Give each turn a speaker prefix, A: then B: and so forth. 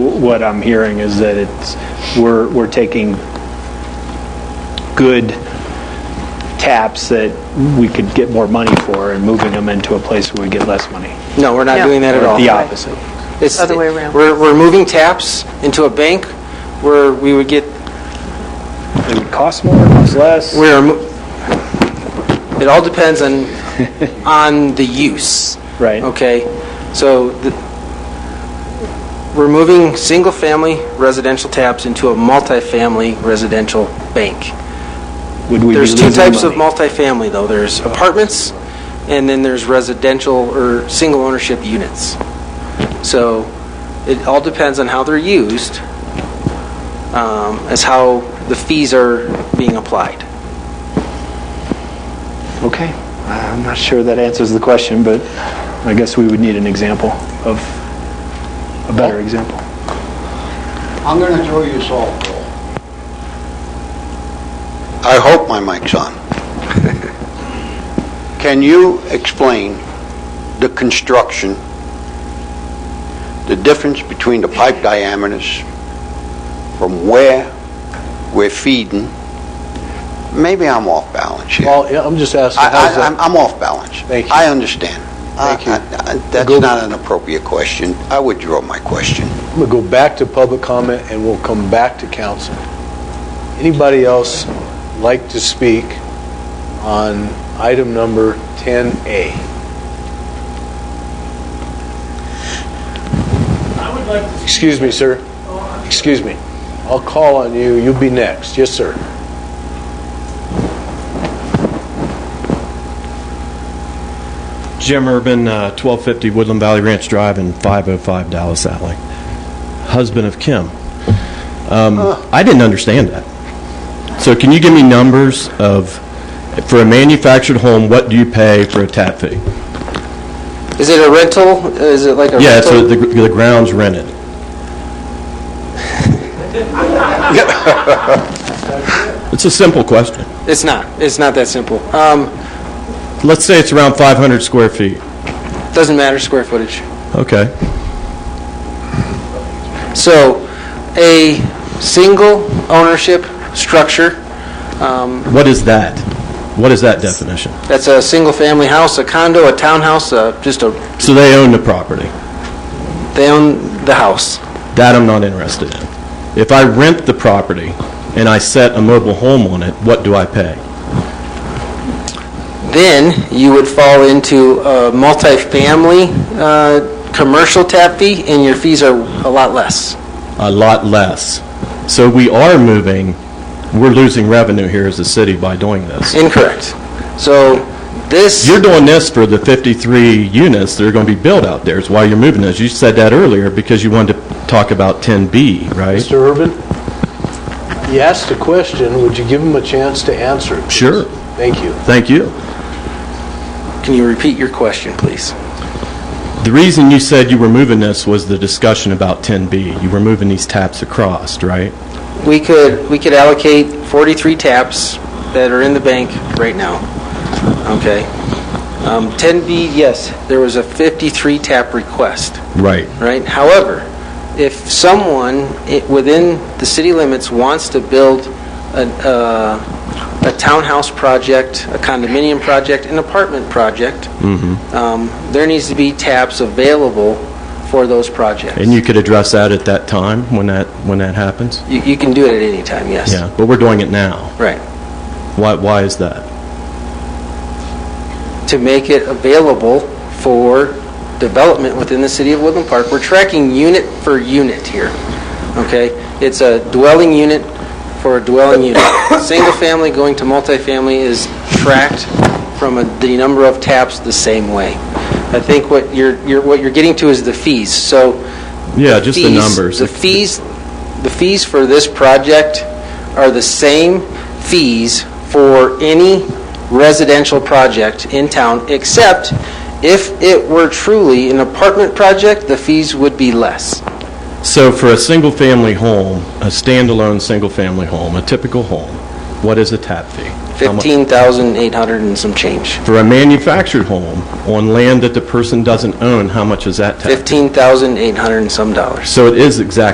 A: what I'm hearing is that it's, we're, we're taking good taps that we could get more money for and moving them into a place where we get less money.
B: No, we're not
C: No.
B: doing that at
A: Or
B: all.
A: The opposite.
B: It's-
C: Other way around.
B: We're, we're moving taps into a bank where we would get,
A: It would cost more, cost less.
B: we are, mo- it all depends on, on the use.
A: Right.
B: Okay? So the- we're moving single-family residential taps into a multifamily residential bank.
A: Would we be
B: There's two
A: losing
B: types of
A: money?
B: multifamily, though. There's apartments, and then there's residential or single-ownership units. So it all depends on how they're used, um, as how the fees are being applied.
A: Okay. I'm not sure that answers the question, but I guess we would need an example of, a better example.
D: I'm going to throw you a softball. I hope my mic's on. Can you explain the construction, the difference between the pipe diameters from where we're feeding? Maybe I'm off balance here.
E: Well, yeah, I'm just asking, how's
D: I- I- I'm
E: that?
D: I'm off balance.
E: Thank you.
D: I understand.
E: Thank you.
D: I- I- I- That's
E: Go-
D: not an appropriate question. I withdraw my question.
E: I'm going to go back to public comment, and we'll come back to council. Anybody else like to speak on item number 10A?
F: I would like to...
E: Excuse me, sir. Excuse me. I'll call on you, you'll be next. Yes, sir.
G: Jim Urban, uh, 1250 Woodland Valley Ranch Drive in 505 Dallas Alley. Husband of Kim. Um, I didn't understand that. So can you give me numbers of, for a manufactured home, what do you pay for a tap fee?
B: Is it a rental? Is it like a rental?
G: Yeah, so the the ground's rented. It's a simple question.
B: It's not. It's not that simple. Um,
G: Let's say it's around 500 square feet.
B: Doesn't matter square footage.
G: Okay.
B: So a single ownership structure, um,
G: What is that? What is that definition?
B: that's a single-family house, a condo, a townhouse, uh, just a
G: So they own the property.
B: They own the house.
G: That I'm not interested in. If I rent the property and I set a mobile home on it, what do I pay?
B: Then you would fall into a multifamily uh, commercial tap fee, and your fees are a lot less.
G: A lot less. So we are moving, we're losing revenue here as a city by doing this.
B: Incorrect. So this,
G: You're doing this for the 53 units that are going to be built out there, is why you're moving this. You said that earlier because you wanted to talk about 10B, right?
E: Mr. Urban? You asked a question, would you give him a chance to answer? it, please?
G: Sure.
E: Thank you.
G: Thank you.
B: can you repeat your question, please?
G: The reason you said you were moving this was the discussion about 10B. You were moving these taps across, right?
B: We could, we could allocate 43 taps that are in the bank right now, okay? Um, 10B, yes, there was a 53 tap request.
G: Right.
B: right? However, if someone i- within the city limits wants to build a uh, a townhouse project, a condominium project, an apartment project,
G: Mm-hmm.
B: um, there needs to be taps available for those projects.
G: And you could address that at that time, when that, when that happens?
B: You you can do it at any time, yes.
G: Yeah, but we're doing it now.
B: Right.
G: Why, why is that?
B: to make it available for development within the city of Woodland Park. We're tracking unit for unit here, okay? It's a dwelling unit for a dwelling unit. Single family going to multifamily is tracked from a- the number of taps the same way. I think what you're, you're- what you're getting to is the fees, so...
G: Yeah, just the
B: fees-
G: numbers.
B: The fees, the fees for this project are the same fees for any residential project in town, except if it were truly an apartment project, the fees would be less.
G: So for a single-family home, a standalone single-family home, a typical home, what is a tap fee? How mu-
B: 15,800 and some change.
G: For a manufactured home on land that the person doesn't own, how much is that tap?
B: 15,800 and some dollars.
G: So it is exactly